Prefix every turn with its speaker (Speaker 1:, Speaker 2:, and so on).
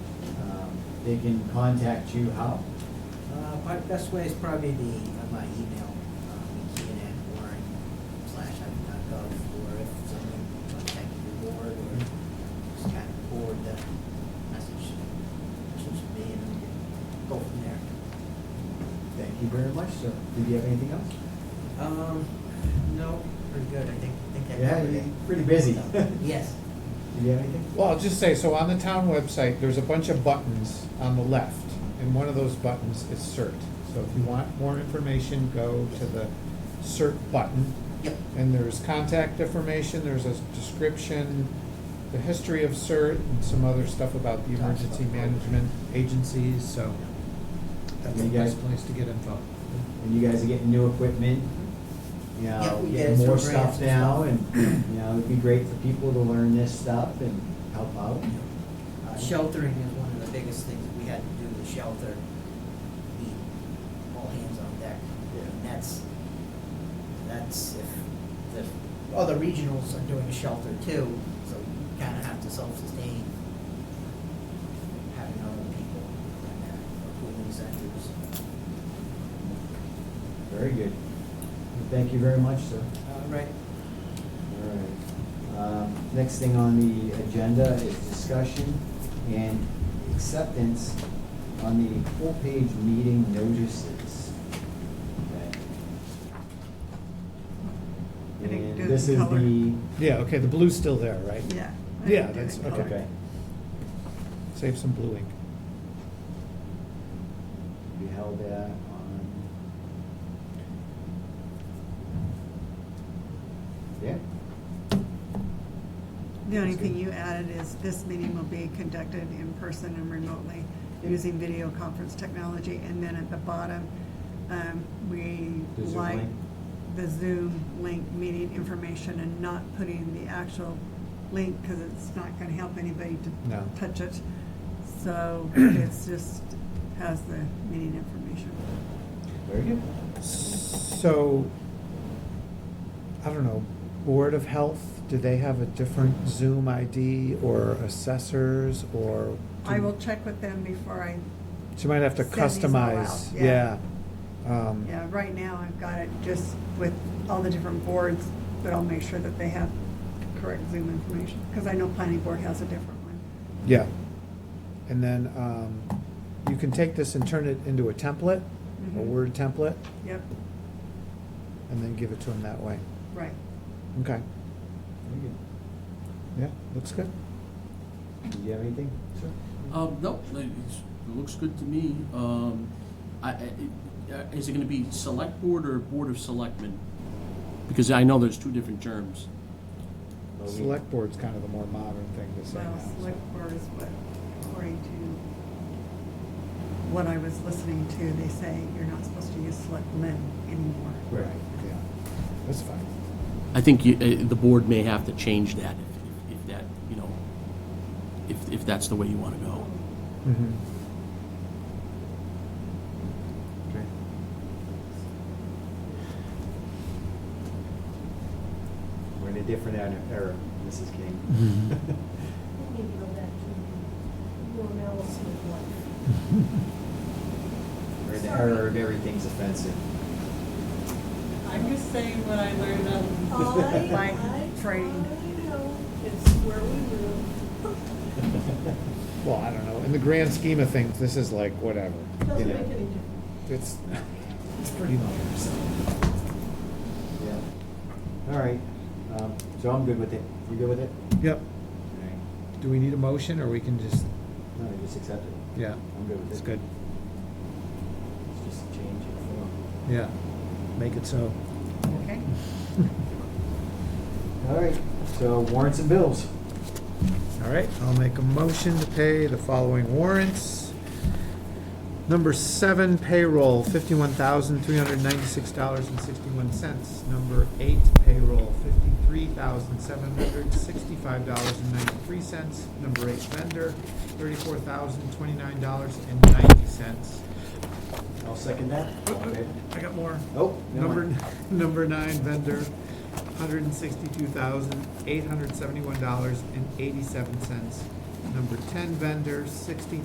Speaker 1: Um, They can contact you how?
Speaker 2: Uh, My best way is probably the, uh, my email, uh, Keenan at Warren slash Ivy.gov, or if someone contacted the board, or just kind of forward the message, message to me, and then we can go from there.
Speaker 1: Thank you very much, sir. Did you have anything else?
Speaker 2: Um, no, pretty good, I think, I think that.
Speaker 1: Yeah,
Speaker 2: covered it.
Speaker 1: you're pretty busy.
Speaker 2: Yes,
Speaker 1: Did you have anything?
Speaker 3: Well, I'll just say, so on the town website, there's a bunch of buttons on the left, and one of those buttons is CERT. So if you want more information, go to the CERT button,
Speaker 2: yep,
Speaker 3: and there's contact information, there's a description, the history of CERT, and some other stuff about the emergency management agencies, so that's a
Speaker 1: You guys-
Speaker 3: nice place to get info.
Speaker 1: And you guys are getting new equipment, you
Speaker 2: Yeah,
Speaker 1: know,
Speaker 2: we
Speaker 1: getting
Speaker 2: get some
Speaker 1: more
Speaker 2: grants
Speaker 1: stuff
Speaker 2: and
Speaker 1: now, and,
Speaker 2: stuff.
Speaker 1: you know, it'd be great for people to learn this stuff and help out.
Speaker 2: Uh, Sheltering is one of the biggest things that we had to do with shelter, the all hands on deck. And that's, that's if the other regionals are doing a shelter too, so you kind of have to self-sustain, having other people and that, or who incentives.
Speaker 1: Very good. Well, Thank you very much, sir.
Speaker 2: Uh, Right.
Speaker 1: All right. Um, Next thing on the agenda is discussion and acceptance on the full-page meeting notices. Okay.
Speaker 4: I didn't do
Speaker 1: And
Speaker 4: the
Speaker 1: this is
Speaker 4: color.
Speaker 1: the,
Speaker 3: Yeah, okay, the blue's still there, right?
Speaker 4: Yeah.
Speaker 3: Yeah, that's- okay.
Speaker 1: okay.
Speaker 3: Save some blue ink.
Speaker 1: We held that on. Yeah,
Speaker 4: The only
Speaker 1: That's
Speaker 4: thing
Speaker 1: good.
Speaker 4: you added is this meeting will be conducted in person and remotely
Speaker 1: Yep.
Speaker 4: using video conference technology. And then at the bottom, um, we
Speaker 1: The Zoom
Speaker 4: like
Speaker 1: link.
Speaker 4: the Zoom link meeting information and not putting the actual link because it's not going to help anybody
Speaker 3: No.
Speaker 4: to touch it. So it's just has the meeting information.
Speaker 1: very good.
Speaker 3: So, I don't know, Board of Health, do they have a different Zoom ID or assessors or?
Speaker 4: I will check with them before I
Speaker 3: She might have to
Speaker 4: Send these all out,
Speaker 3: customize, yeah.
Speaker 4: yeah.
Speaker 3: Um,
Speaker 4: Yeah, right now I've got it just with all the different boards, but I'll make sure that they have correct Zoom information, because I know planning board has a different one.
Speaker 3: Yeah. And then, um, you can take this and turn it into a template, a
Speaker 4: Mhm.
Speaker 3: Word template,
Speaker 4: Yep,
Speaker 3: and then give it to them that way.
Speaker 4: right.
Speaker 3: Okay,
Speaker 1: Very good.
Speaker 3: yeah, looks good.
Speaker 1: Did you have anything? Sure.
Speaker 5: Um, no, it- it's- it looks good to me. Um, I, I, it- uh, is it gonna be select board or board of selectmen? Because I know there's two different terms.
Speaker 3: Uh, Select Board's kind of the more modern thing to say now.
Speaker 4: Well,
Speaker 3: so.
Speaker 4: select board is what, according to what I was listening to, they say you're not supposed to use selectmen anymore.
Speaker 3: Right, yeah, that's fine.
Speaker 5: I think you, uh, the board may have to change that if, if that, you know, if, if that's the way you wanna go.
Speaker 3: Mhm.
Speaker 1: Okay. We're in a different era- era, Mrs. King.
Speaker 6: Maybe go back to your analysis of life.
Speaker 1: We're in the era of everything's offensive.
Speaker 7: I'm just saying what I learned on.
Speaker 6: I,
Speaker 4: Like
Speaker 6: I, I
Speaker 4: training.
Speaker 6: know, it's where we live,
Speaker 3: Well, I don't know, in the grand scheme of things, this is like whatever, you
Speaker 6: doesn't make
Speaker 3: know,
Speaker 6: any difference.
Speaker 3: it's, it's pretty minor, so.
Speaker 1: Yeah. All right, um, so I'm good with it. You good with it?
Speaker 3: Yep,
Speaker 1: All right.
Speaker 3: do we need a motion, or we can just,
Speaker 1: No, I just accept it.
Speaker 3: yeah,
Speaker 1: I'm good with it.
Speaker 3: it's good,
Speaker 1: It's just a change in form.
Speaker 3: yeah, make it so.
Speaker 4: Okay.
Speaker 1: All right, so warrants and bills.
Speaker 3: All right, I'll make a motion to pay the following warrants. Number seven payroll, fifty-one thousand, three hundred ninety-six dollars and sixty-one cents. Number eight payroll, fifty-three thousand, seven hundred sixty-five dollars and ninety-three cents. Number eight vendor, thirty-four thousand, twenty-nine dollars and ninety cents.
Speaker 1: I'll second that. Okay.
Speaker 3: I got more.
Speaker 1: Oh, never
Speaker 3: Oh. Number,
Speaker 1: mind.
Speaker 3: number nine vendor, hundred and sixty-two thousand, eight hundred seventy-one dollars and eighty-seven cents. Number ten vendor, sixty